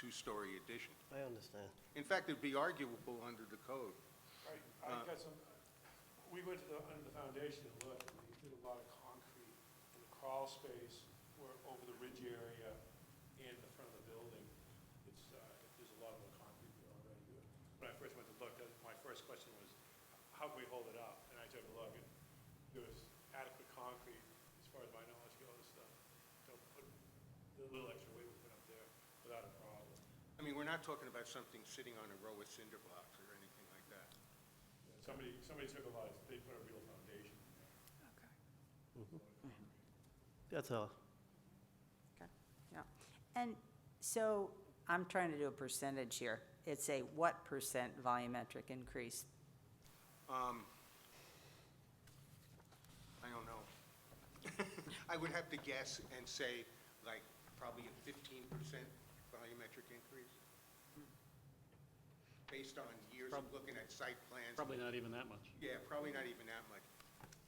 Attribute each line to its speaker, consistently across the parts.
Speaker 1: two-story addition.
Speaker 2: I understand.
Speaker 1: In fact, it'd be arguable under the code.
Speaker 3: Right, I got some, we went to the, under the foundation to look, and they did a lot of concrete in the crawl space, where, over the ridge area and the front of the building. It's, uh, there's a lot of concrete there already. When I first went to look, that- my first question was, how can we hold it up? And I took a look, and there was adequate concrete, as far as my knowledge goes, uh, to put the little extra weight we put up there without a problem.
Speaker 1: I mean, we're not talking about something sitting on a row of cinder blocks or anything like that.
Speaker 3: Somebody, somebody took a lot, of- they put a real foundation in there.
Speaker 2: That's all.
Speaker 4: Yeah. And so I'm trying to do a percentage here. It's a what percent volumetric increase?
Speaker 1: Um, I don't know. I would have to guess and say, like, probably a fifteen percent volumetric increase, based on years of
Speaker 5: Prob-
Speaker 1: looking at site plans.
Speaker 5: Probably not even that much.
Speaker 1: Yeah, probably not even that much.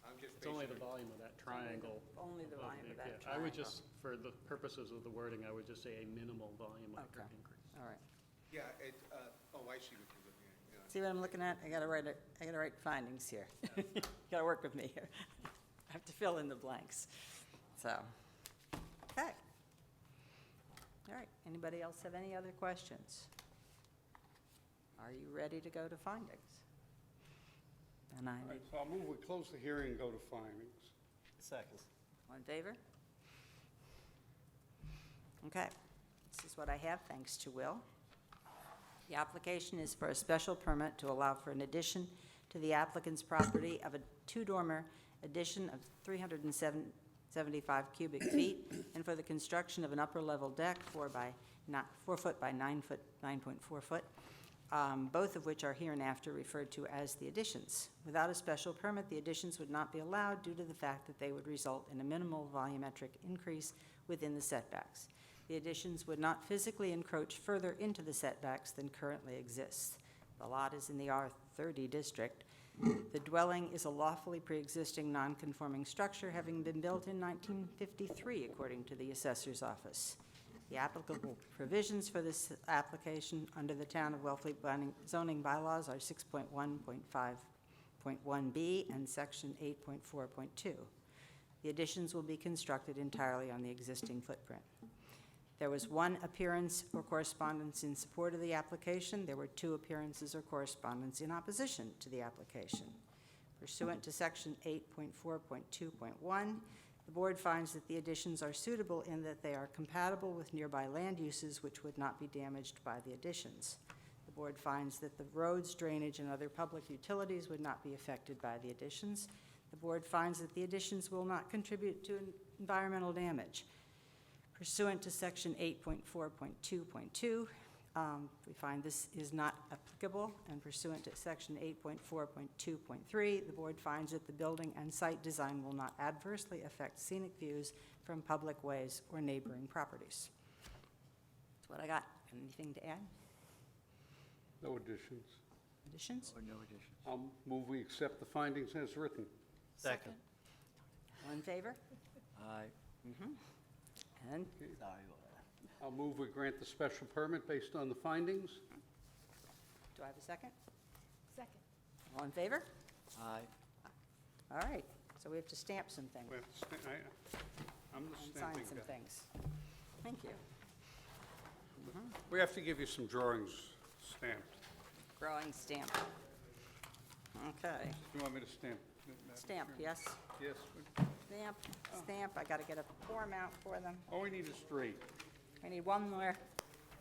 Speaker 1: I'm just
Speaker 5: It's only
Speaker 1: basing
Speaker 5: the
Speaker 1: it,
Speaker 5: volume of that triangle.
Speaker 4: Only the
Speaker 5: above
Speaker 4: volume of
Speaker 5: the-
Speaker 4: that
Speaker 5: yeah. I would
Speaker 4: triangle.
Speaker 5: just, for the purposes of the wording, I would just say a minimal volume of
Speaker 4: Okay.
Speaker 5: increase.
Speaker 4: All right.
Speaker 1: yeah, it, uh, oh, I see what you're looking at, yeah.
Speaker 4: See what I'm looking at? I gotta write, it- I gotta write findings here. Gotta work with me here. I have to fill in the blanks. So, okay. All right. Anybody else have any other questions? Are you ready to go to findings? And I,
Speaker 6: All right, so I'll move, we close the hearing and go to findings.
Speaker 2: Second.
Speaker 4: All in favor? Okay, this is what I have, thanks to Will. The application is for a special permit to allow for an addition to the applicant's property of a two-dormer addition of 375 cubic feet, and for the construction of an upper-level deck, four by, not, four foot by nine foot, 9.4 foot, um, both of which are hereinafter referred to as the additions. Without a special permit, the additions would not be allowed due to the fact that they would result in a minimal volumetric increase within the setbacks. The additions would not physically encroach further into the setbacks than currently exists. The lot is in the R30 district. The dwelling is a lawfully pre-existing non-conforming structure, having been built in 1953, according to the assessor's office. The applicable provisions for this application under the Town of Wellfleet binding- zoning bylaws are 6.1.5.1B and Section 8.4.2. The additions will be constructed entirely on the existing footprint. There was one appearance or correspondence in support of the application. There were two appearances or correspondence in opposition to the application. Pursuant to Section 8.4.2.1, the board finds that the additions are suitable in that they are compatible with nearby land uses which would not be damaged by the additions. The board finds that the roads, drainage, and other public utilities would not be affected by the additions. The board finds that the additions will not contribute to environmental damage pursuant to Section 8.4.2.2. um, We find this is not applicable, and pursuant to Section 8.4.2.3, the board finds that the building and site design will not adversely affect scenic views from public ways or neighboring properties. That's what I got. Anything to add?
Speaker 6: No additions.
Speaker 4: Additions?
Speaker 6: I'll move, we accept the findings as written.
Speaker 2: Second.
Speaker 4: All in favor?
Speaker 7: Aye.
Speaker 4: Mm-hmm. And
Speaker 6: I'll move, we grant the special permit based on the findings.
Speaker 4: do I have a second?
Speaker 8: Second.
Speaker 4: All in favor?
Speaker 7: Aye.
Speaker 4: All right, so we have to stamp some things.
Speaker 6: We have to sta- I- I'm the
Speaker 4: And
Speaker 6: stamping
Speaker 4: sign some
Speaker 6: guy.
Speaker 4: things. Thank you.
Speaker 6: We have to give you some drawings stamped.
Speaker 4: Growing stamp. Okay,
Speaker 6: You want me to stamp? it, Madam
Speaker 4: stamp,
Speaker 6: Chair?
Speaker 4: yes,
Speaker 6: Yes. we-
Speaker 4: stamp, stamp, I gotta get a form out for them.
Speaker 6: All we need is three.
Speaker 4: I need one more.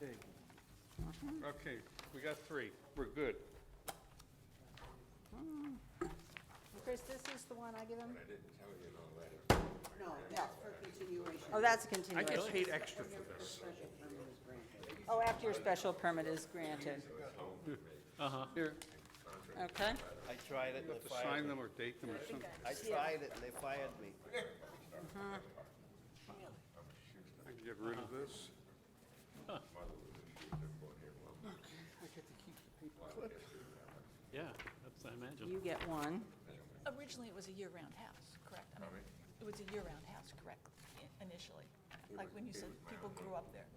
Speaker 6: Okay, we got three. We're good.
Speaker 4: Chris, this is the one I give him? I didn't tell you in all that. No, that's for
Speaker 6: I
Speaker 4: continuation. Oh, that's a
Speaker 6: get
Speaker 4: continuation.
Speaker 6: paid extra for this.
Speaker 4: Oh, after your special permit is granted,
Speaker 6: Here,
Speaker 4: okay?
Speaker 7: I tried it
Speaker 6: you
Speaker 7: and
Speaker 6: have to
Speaker 7: they fired
Speaker 6: sign
Speaker 7: me.
Speaker 6: them or date them or something.
Speaker 7: I tried it and they fired me.
Speaker 6: I can get rid of this.
Speaker 5: Yeah, that's, I imagine.
Speaker 4: You get one,
Speaker 8: Originally, it was a year-round house, correct? I mean, It was a year-round house, correct, initially, like when you said people grew up there.